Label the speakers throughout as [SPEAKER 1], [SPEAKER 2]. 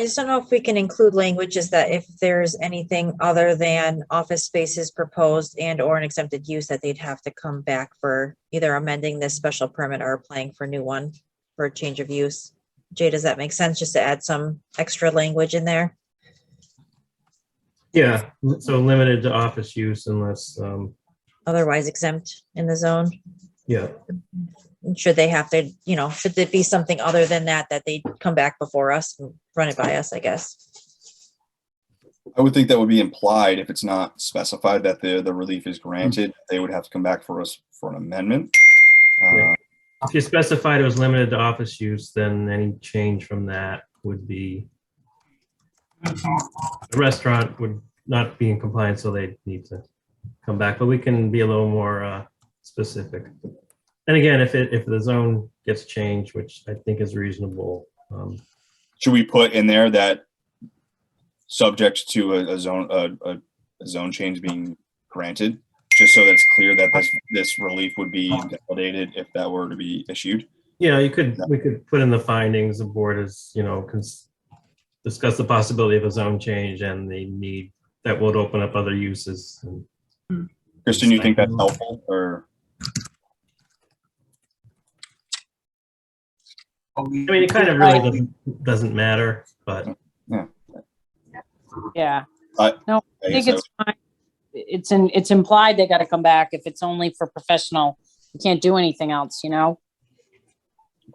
[SPEAKER 1] I just don't know if we can include languages that if there's anything other than office spaces proposed and or an exempted use that they'd have to come back for either amending this special permit or applying for a new one for a change of use. Jay, does that make sense? Just to add some extra language in there?
[SPEAKER 2] Yeah, so limited to office use unless, um,
[SPEAKER 1] Otherwise exempt in the zone?
[SPEAKER 2] yeah,
[SPEAKER 1] Should they have to, you know, should there be something other than that that they come back before us, and run it by us, I guess?
[SPEAKER 3] I would think that would be implied if it's not specified that the, the relief is granted, they would have to come back for us for an amendment. Uh,
[SPEAKER 2] Yeah. If you specified it was limited to office use, then any change from that would be. The restaurant would not be in compliance, so they'd need to come back, but we can be a little more uh, specific. And again, if it, if the zone gets changed, which I think is reasonable, um,
[SPEAKER 3] Should we put in there that subject to a, a zone, a, a, a zone change being granted? Just so that's clear that this, this relief would be validated if that were to be issued?
[SPEAKER 2] Yeah, you could, we could put in the findings, the board is, you know, cons- discuss the possibility of a zone change and the need that would open up other uses. and-
[SPEAKER 3] Kristen, you think that's helpful or?
[SPEAKER 4] I
[SPEAKER 2] I mean, it kind of really doesn't, doesn't matter, but
[SPEAKER 5] Yeah, I think
[SPEAKER 3] guess
[SPEAKER 5] it's fine. It's in, it's implied they gotta come back if it's only for professional. You can't do anything else, you know?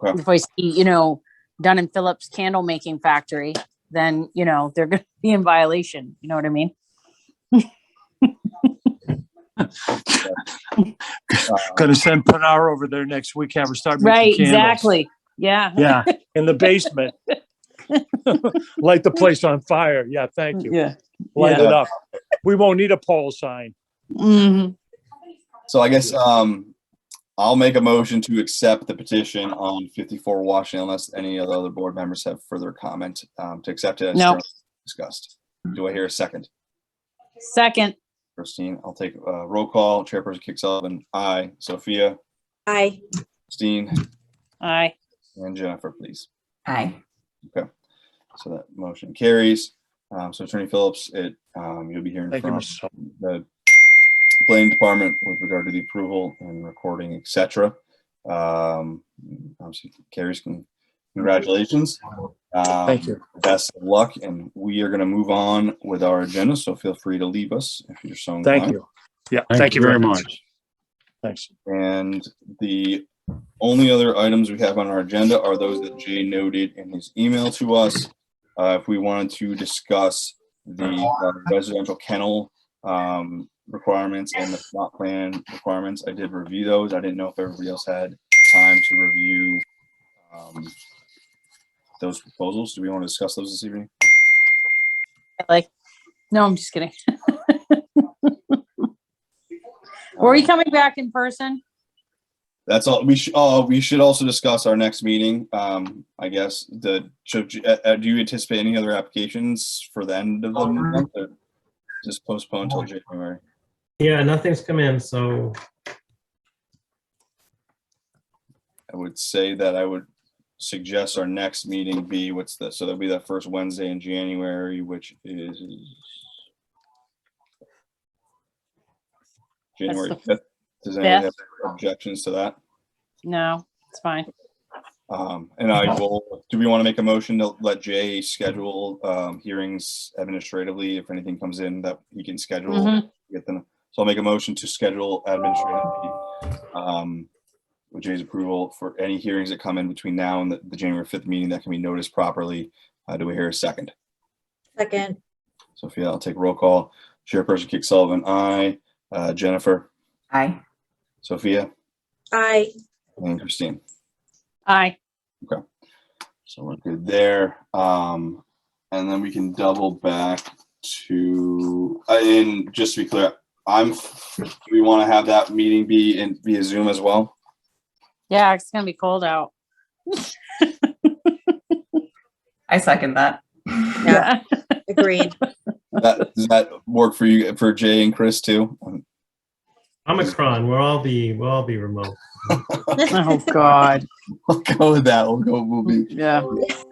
[SPEAKER 3] Okay.
[SPEAKER 5] If I see, you know, Dunn and Phillips Candle Making Factory, then, you know, they're gonna be in violation, you know what I mean?
[SPEAKER 3] I- uh,
[SPEAKER 4] Gonna send Pinar over there next week, have her start making
[SPEAKER 5] Right,
[SPEAKER 4] candles.
[SPEAKER 5] exactly. Yeah,
[SPEAKER 4] Yeah, in the basement. Light the place on fire. Yeah, thank you.
[SPEAKER 5] yeah.
[SPEAKER 4] Light
[SPEAKER 3] Yeah.
[SPEAKER 4] it up. We won't need a pole sign.
[SPEAKER 5] Mhm.
[SPEAKER 3] So I guess um, I'll make a motion to accept the petition on 54 Washington unless any of the other board members have further comment um, to accept it as
[SPEAKER 5] No.
[SPEAKER 3] discussed. Do I hear a second?
[SPEAKER 5] Second,
[SPEAKER 3] Christine, I'll take uh, roll call. Chairperson Kick Sullivan, aye. Sophia,
[SPEAKER 1] Aye.
[SPEAKER 3] Christine,
[SPEAKER 5] aye.
[SPEAKER 3] and Jennifer, please.
[SPEAKER 6] Aye.
[SPEAKER 3] So that motion carries. Um, So Attorney Phillips, it, um, you'll be hearing
[SPEAKER 4] Thank you,
[SPEAKER 3] from
[SPEAKER 4] Mr. Sullivan.
[SPEAKER 3] the planning department with regard to the approval and recording, et cetera. Um, obviously, Carrie's con- congratulations. Um,
[SPEAKER 4] Thank you.
[SPEAKER 3] Best of luck, and we are gonna move on with our agenda, so feel free to leave us if you're so.
[SPEAKER 4] Thank
[SPEAKER 3] inclined.
[SPEAKER 4] you. Yeah, thank you very much. Thanks.
[SPEAKER 3] And the only other items we have on our agenda are those that Jay noted in his email to us. Uh, if we wanted to discuss the uh, residential kennel, um, requirements and the plot plan requirements, I did review those. I didn't know if everybody else had time to review, um, those proposals. Do we want to discuss those this evening?
[SPEAKER 5] Like, no, I'm just kidding. Were you coming back in person?
[SPEAKER 3] That's all, we should, oh, we should also discuss our next meeting, um, I guess, the, should, you- uh, uh, do you anticipate any other applications for the end of the month? or Just postpone till January,
[SPEAKER 2] yeah, nothing's come in, so
[SPEAKER 3] I would say that I would suggest our next meeting be, what's the, so that'll be that first Wednesday in January, which is January
[SPEAKER 5] the
[SPEAKER 3] fifth, does anyone have
[SPEAKER 5] fifth.
[SPEAKER 3] objections to that?
[SPEAKER 5] No, it's fine.
[SPEAKER 3] Um, and I will, do we want to make a motion to let Jay schedule, um, hearings administratively if anything comes in that he can schedule?
[SPEAKER 5] Mhm.
[SPEAKER 3] Get them, so I'll make a motion to schedule administratively, um, with Jay's approval for any hearings that come in between now and the, the January fifth meeting that can be noticed properly. Uh, do we hear a second?
[SPEAKER 1] Second.
[SPEAKER 3] Sophia, I'll take roll call. Chairperson Kick Sullivan, aye. Uh, Jennifer,
[SPEAKER 6] Aye.
[SPEAKER 3] Sophia,
[SPEAKER 1] Aye.
[SPEAKER 3] and Christine.
[SPEAKER 5] Aye.
[SPEAKER 3] So we're good there. Um, and then we can double back to, uh, and just to be clear, I'm, do we want to have that meeting be in via Zoom as well?
[SPEAKER 5] Yeah, it's gonna be cold out.
[SPEAKER 6] I second that.
[SPEAKER 1] Yeah. Agreed.
[SPEAKER 3] That, does that work for you, for Jay and Chris too? Um,
[SPEAKER 2] Omicron, we'll all be, we'll all be remote.
[SPEAKER 5] Oh, God.
[SPEAKER 3] We'll go with that. We'll go, we'll be
[SPEAKER 5] Yeah.